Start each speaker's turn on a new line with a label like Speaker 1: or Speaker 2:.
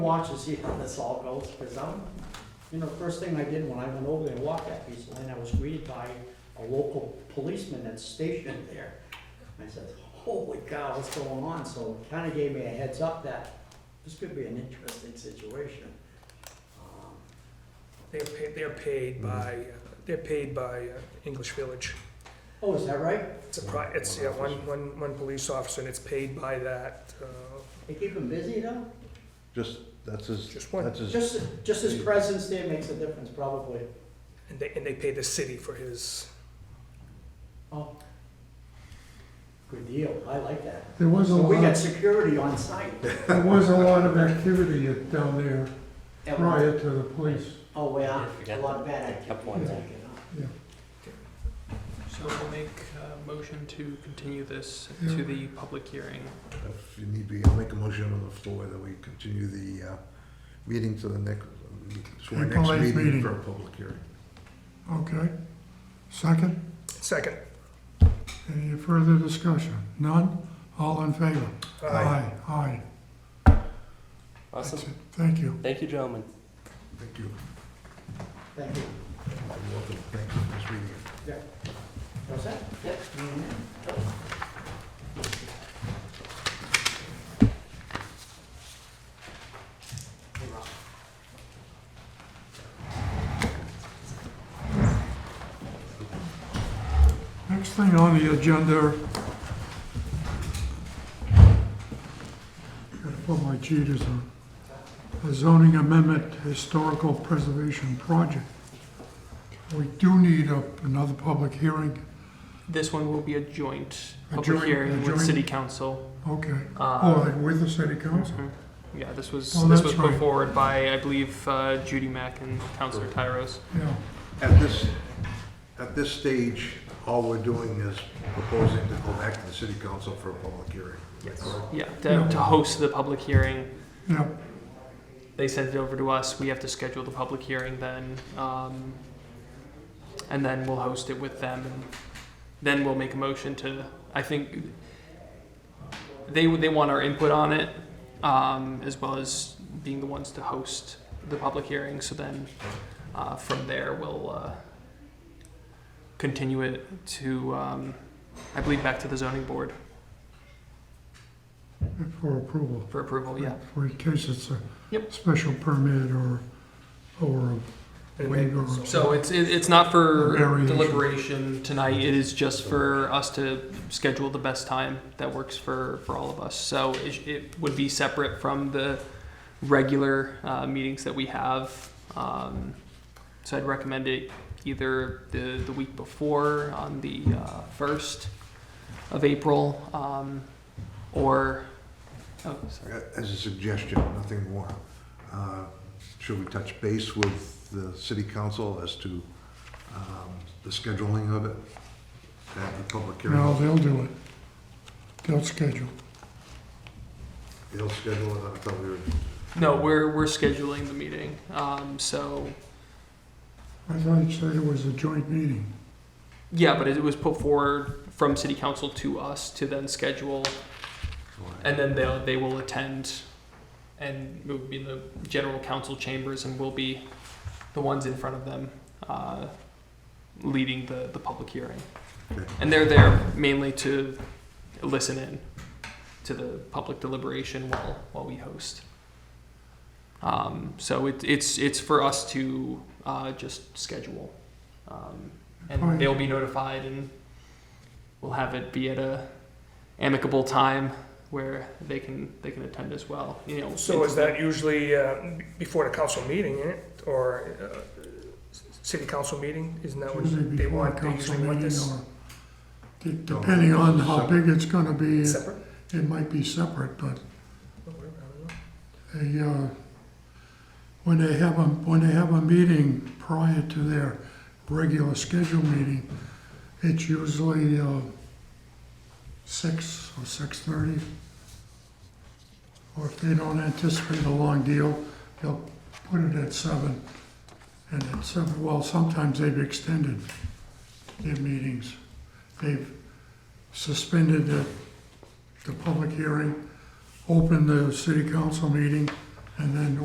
Speaker 1: Watch and see how this all goes, because I'm, you know, first thing I did when I went over there and walked that piece of land, I was greeted by a local policeman that's stationed there. I said, holy cow, what's going on? So it kinda gave me a heads up that this could be an interesting situation. Um,
Speaker 2: They're paid, they're
Speaker 3: Mm-hmm.
Speaker 2: paid by, they're paid by uh, English Village.
Speaker 1: Oh, is that right?
Speaker 2: It's a
Speaker 3: Mm-hmm.
Speaker 2: pri, it's, yeah, one, one, one police officer and it's paid by that, uh,
Speaker 1: They keep him busy though?
Speaker 4: Just, that's his,
Speaker 2: just one.
Speaker 4: that's his,
Speaker 1: Just, just his presence there makes a difference probably.
Speaker 2: And they, and they pay the city for his,
Speaker 1: Oh. Good deal, I like that.
Speaker 3: There was a
Speaker 1: So we got
Speaker 3: lot,
Speaker 1: security on site.
Speaker 3: there was a lot of activity at- down there
Speaker 1: at one
Speaker 3: prior to the police.
Speaker 1: Oh, yeah, a
Speaker 5: Forget
Speaker 1: lot of bad activity.
Speaker 5: Kept one there.
Speaker 6: So we'll make a motion to continue this
Speaker 3: Yeah.
Speaker 6: to the public hearing.
Speaker 4: if you need be, I'll make a motion on the floor that we continue the, uh, meeting to the next, to our
Speaker 3: April
Speaker 4: next
Speaker 3: 8th
Speaker 4: meeting
Speaker 3: meeting.
Speaker 4: for a public hearing.
Speaker 3: Okay. Second,
Speaker 2: second.
Speaker 3: any further discussion? None? All in favor?
Speaker 2: Uh,
Speaker 3: Aye. That's
Speaker 5: Awesome.
Speaker 3: it. Thank you.
Speaker 5: Thank you, gentlemen.
Speaker 4: Thank you.
Speaker 1: Thank you.
Speaker 4: You're welcome. Thank you for this meeting.
Speaker 1: What's that? Yep.
Speaker 3: Next thing on the agenda. Gotta put my cheaters on. A zoning amendment historical preservation project. We do need a, another public hearing.
Speaker 6: This one will be a joint
Speaker 3: A
Speaker 6: public
Speaker 3: joint- a
Speaker 6: hearing with
Speaker 3: joint-
Speaker 6: city council.
Speaker 3: Okay. Oh,
Speaker 6: Uh,
Speaker 3: like with the city council?
Speaker 6: mhm. Yeah, this was,
Speaker 3: Oh,
Speaker 6: this
Speaker 3: that's
Speaker 6: was put
Speaker 3: right.
Speaker 6: forward by, I believe, uh, Judy Mack and Councilor Tyros.
Speaker 3: Yeah.
Speaker 4: At this, at this stage, all we're doing is proposing to go back to the city council for a public hearing. Yes.
Speaker 6: Yeah, to, to host the public hearing.
Speaker 3: Yeah,
Speaker 6: They sent it over to us. We have to schedule the public hearing then. Um, and then we'll host it with them. And then we'll make a motion to, I think they, they want our input on it, um, as well as being the ones to host the public hearing. So then uh, from there, we'll uh, continue it to, um, I believe, back to the zoning board
Speaker 3: for approval.
Speaker 6: for
Speaker 2: Oh,
Speaker 6: approval. Yeah.
Speaker 3: For in case it's a
Speaker 6: Yep.
Speaker 3: special permit or, or a waiver. or-
Speaker 6: So it's, it- it's not for
Speaker 3: Variation.
Speaker 6: deliberation tonight, it is just for us to schedule the best time that works for, for all of us. So it, it would be separate from the regular, uh, meetings that we have. Um, so I'd recommend it either the, the week before on the, uh, first of April, um, or, oh, sorry.
Speaker 4: Uh, As a suggestion, nothing more. Uh, Should we touch base with the city council as to um, the scheduling of it? At the public hearing?
Speaker 3: No, they'll do it. They'll schedule.
Speaker 4: They'll schedule it, I thought we were,
Speaker 6: No, we're, we're scheduling the meeting, um, so.
Speaker 3: I thought you said it was a joint meeting.
Speaker 6: Yeah, but it was put forward from city council to us to then schedule, and then they'll, they will attend. And it would be in the general council chambers and we'll be the ones in front of them, uh, leading the, the public hearing.
Speaker 4: Okay.
Speaker 6: And they're there mainly to listen in to the public deliberation while, while we host. Um, so it, it's, it's for us to, uh, just schedule. Um,
Speaker 3: Alright.
Speaker 6: and they'll be notified and we'll have it be at a amicable time where they can, they can attend as well, you know.
Speaker 2: So is that usually, uh, before the council meeting, eh, or, uh, s- city council meeting? Isn't that
Speaker 3: Usually
Speaker 2: what they
Speaker 3: before
Speaker 2: want, they
Speaker 3: council
Speaker 2: usually want
Speaker 3: meeting
Speaker 2: this Oh.
Speaker 3: or- de- Depending on how
Speaker 4: Separate.
Speaker 3: big it's gonna be, it
Speaker 2: separate?
Speaker 3: it might be separate, but
Speaker 2: Oh, whatever, I don't know.
Speaker 3: they, uh, when they have a, when they have a meeting prior to their regular scheduled meeting, it's usually, uh, six or six-thirty. Or if they don't anticipate a long deal, they'll put it at seven. And at seven, well, sometimes they've extended their meetings. They've suspended the, the public hearing, opened the city council meeting, and then